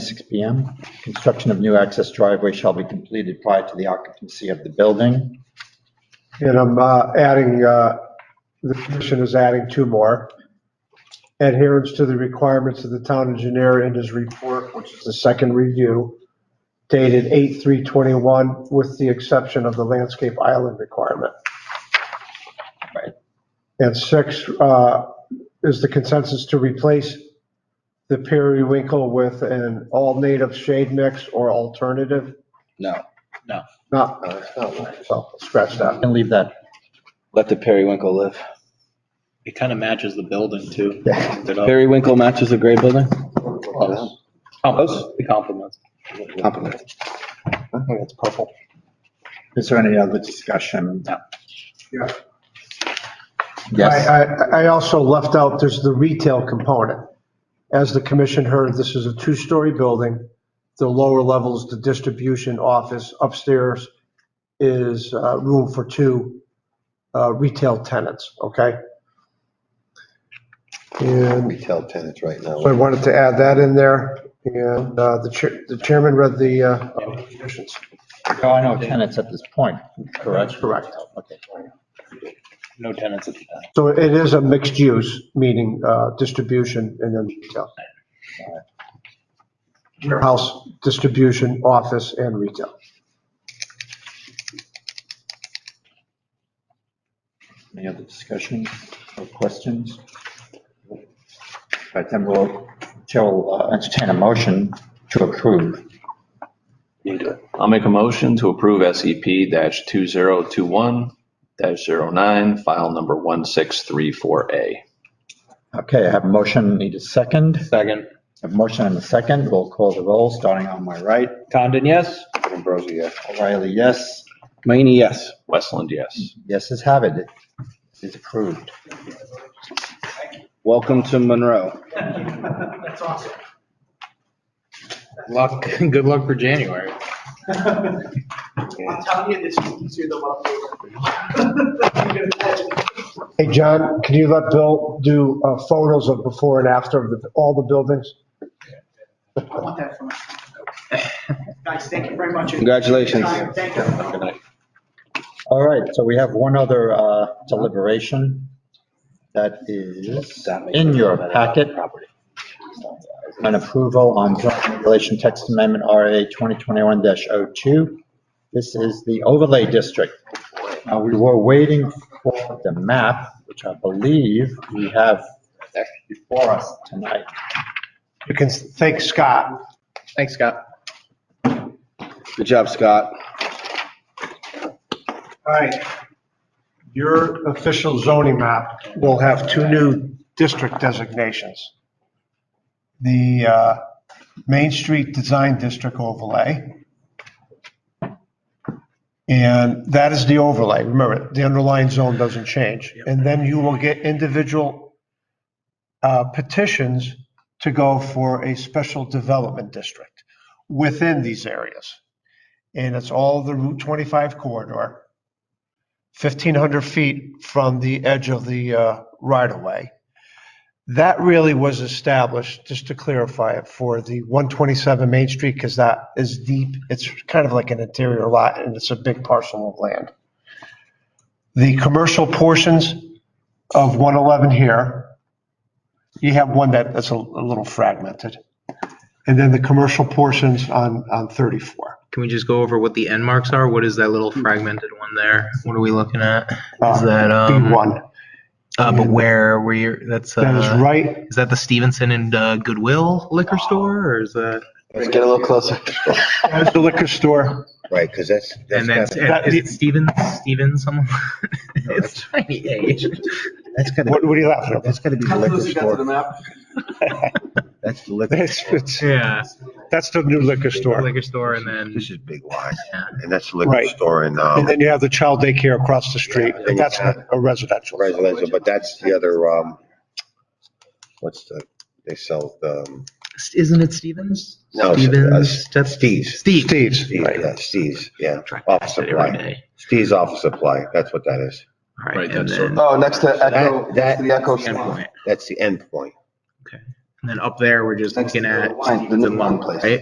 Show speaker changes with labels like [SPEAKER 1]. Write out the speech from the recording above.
[SPEAKER 1] six P M. Construction of new access driveway shall be completed prior to the occupancy of the building.
[SPEAKER 2] And I'm uh, adding, uh, the commission is adding two more. Adherence to the requirements of the town engineer in his report, which is the second review, dated 8/3/21, with the exception of the landscape island requirement.
[SPEAKER 1] Right.
[SPEAKER 2] And six uh, is the consensus to replace the periwinkle with an all-native shade mix or alternative.
[SPEAKER 3] No,
[SPEAKER 2] Not, so scratch that.
[SPEAKER 1] And leave that.
[SPEAKER 3] let the periwinkle live.
[SPEAKER 4] It kind of matches the building too.
[SPEAKER 1] Yeah.
[SPEAKER 4] Linked it up.
[SPEAKER 3] Periwinkle matches a gray building?
[SPEAKER 4] Close. Compliments. It compliments.
[SPEAKER 3] Compliment.
[SPEAKER 4] It's purple.
[SPEAKER 1] Is there any other discussion?
[SPEAKER 4] No.
[SPEAKER 2] Yeah.
[SPEAKER 1] Yes,
[SPEAKER 2] I, I, I also left out, there's the retail component. As the commission heard, this is a two-story building. The lower level is the distribution office. Upstairs is uh, room for two uh, retail tenants, okay? And
[SPEAKER 5] retail tenants right now.
[SPEAKER 2] so I wanted to add that in there. And uh, the chair, the chairman read the uh, conditions.
[SPEAKER 1] there are no tenants at this point, correct?
[SPEAKER 2] Correct.
[SPEAKER 1] Okay.
[SPEAKER 4] No tenants at the back.
[SPEAKER 2] So it is a mixed use, meaning uh, distribution and then retail. Warehouse, distribution, office, and retail.
[SPEAKER 1] Any other discussion or questions? All right, then we'll, Chair will uh, entertain a motion to approve.
[SPEAKER 4] You do it.
[SPEAKER 6] I'll make a motion to approve SEP dash two zero two one dash zero nine, file number one six three four A.
[SPEAKER 1] Okay, I have a motion, need a second.
[SPEAKER 4] Second.
[SPEAKER 1] I have a motion and a second. We'll call the roll, starting on my right.
[SPEAKER 4] Condon, yes?
[SPEAKER 3] Ambrosi, yes.
[SPEAKER 1] O'Reilly, yes.
[SPEAKER 3] Mayini, yes.
[SPEAKER 6] Westland, yes.
[SPEAKER 1] Yeses have it. It is approved.
[SPEAKER 3] Welcome to Monroe.
[SPEAKER 4] Luck, good luck for January.
[SPEAKER 7] I'm telling you, this is easier than what I'm doing.
[SPEAKER 2] Hey, John, can you let Bill do uh, photos of before and after of the- all the buildings?
[SPEAKER 7] I want that for my. Guys, thank you very much.
[SPEAKER 3] Congratulations.
[SPEAKER 7] Thank you.
[SPEAKER 6] Good night.
[SPEAKER 1] All right, so we have one other uh, deliberation that is in your packet. An approval on joint regulation text amendment RA 2021-02. This is the overlay district. Now, we were waiting for the map, which I believe we have before us tonight.
[SPEAKER 2] You can thank Scott.
[SPEAKER 4] Thanks, Scott.
[SPEAKER 3] Good job, Scott.
[SPEAKER 2] All right. Your official zoning map will have two new district designations. The uh, Main Street Design District overlay. And that is the overlay. Remember, the underlying zone doesn't change. And then you will get individual uh, petitions to go for a special development district within these areas. And it's all the Route 25 corridor. 1,500 feet from the edge of the uh, right-of-way. That really was established, just to clarify it, for the 127 Main Street, because that is deep. It's kind of like an interior lot, and it's a big parcel of land. The commercial portions of 111 here, you have one that, that's a a little fragmented. And then the commercial portions on, on 34.
[SPEAKER 8] Can we just go over what the end marks are? What is that little fragmented one there? What are we looking at?
[SPEAKER 2] Uh,
[SPEAKER 8] Is that, um,
[SPEAKER 2] B1,
[SPEAKER 8] Uh, but where were you? That's uh,
[SPEAKER 2] that is right
[SPEAKER 8] Is that the Stevenson and uh, Goodwill liquor store, or is that?
[SPEAKER 3] Let's get a little closer.
[SPEAKER 2] That's the liquor store.
[SPEAKER 5] Right, because that's, that's
[SPEAKER 8] and that's
[SPEAKER 5] gotta,
[SPEAKER 2] that-
[SPEAKER 8] is it Stevens? Stevens? Someone? it's tiny. eh?
[SPEAKER 5] that's gotta,
[SPEAKER 2] What, what are you laughing at?
[SPEAKER 5] that's gotta be the
[SPEAKER 7] How
[SPEAKER 5] liquor
[SPEAKER 7] close you got
[SPEAKER 5] store.
[SPEAKER 7] to the map?
[SPEAKER 5] That's the liquor.
[SPEAKER 2] That's,
[SPEAKER 5] store.
[SPEAKER 2] it's,
[SPEAKER 8] Yeah,
[SPEAKER 2] that's the new liquor store.
[SPEAKER 8] liquor store, and then
[SPEAKER 5] This is Big Y,
[SPEAKER 8] yeah.
[SPEAKER 5] and that's the liquor
[SPEAKER 2] Right.
[SPEAKER 5] store and,
[SPEAKER 2] And
[SPEAKER 5] um,
[SPEAKER 2] then you have the child daycare across the street.
[SPEAKER 5] Yeah.
[SPEAKER 2] That's a residential.
[SPEAKER 5] residential, but that's the other, um, what's the, they sell the, um,
[SPEAKER 8] isn't it Stevens?
[SPEAKER 5] No, it's, uh,
[SPEAKER 8] Stevens. That's
[SPEAKER 5] Steve's.
[SPEAKER 8] Steve.
[SPEAKER 2] Steve's.
[SPEAKER 5] Steve's, yeah, Steve's, yeah,
[SPEAKER 8] Try to
[SPEAKER 5] office
[SPEAKER 8] say it every
[SPEAKER 5] supply.
[SPEAKER 8] day.
[SPEAKER 5] Steve's office supply, that's what that is.
[SPEAKER 8] All right,
[SPEAKER 6] Right,
[SPEAKER 8] and
[SPEAKER 6] that's
[SPEAKER 8] then
[SPEAKER 3] Oh, next to
[SPEAKER 5] That, that,
[SPEAKER 3] the Echo.
[SPEAKER 8] endpoint.
[SPEAKER 5] that's the end point.
[SPEAKER 8] Okay.
[SPEAKER 9] And then up there, we're just looking at
[SPEAKER 8] Fine,
[SPEAKER 9] the
[SPEAKER 8] the new one,
[SPEAKER 9] month,
[SPEAKER 8] please.
[SPEAKER 9] right?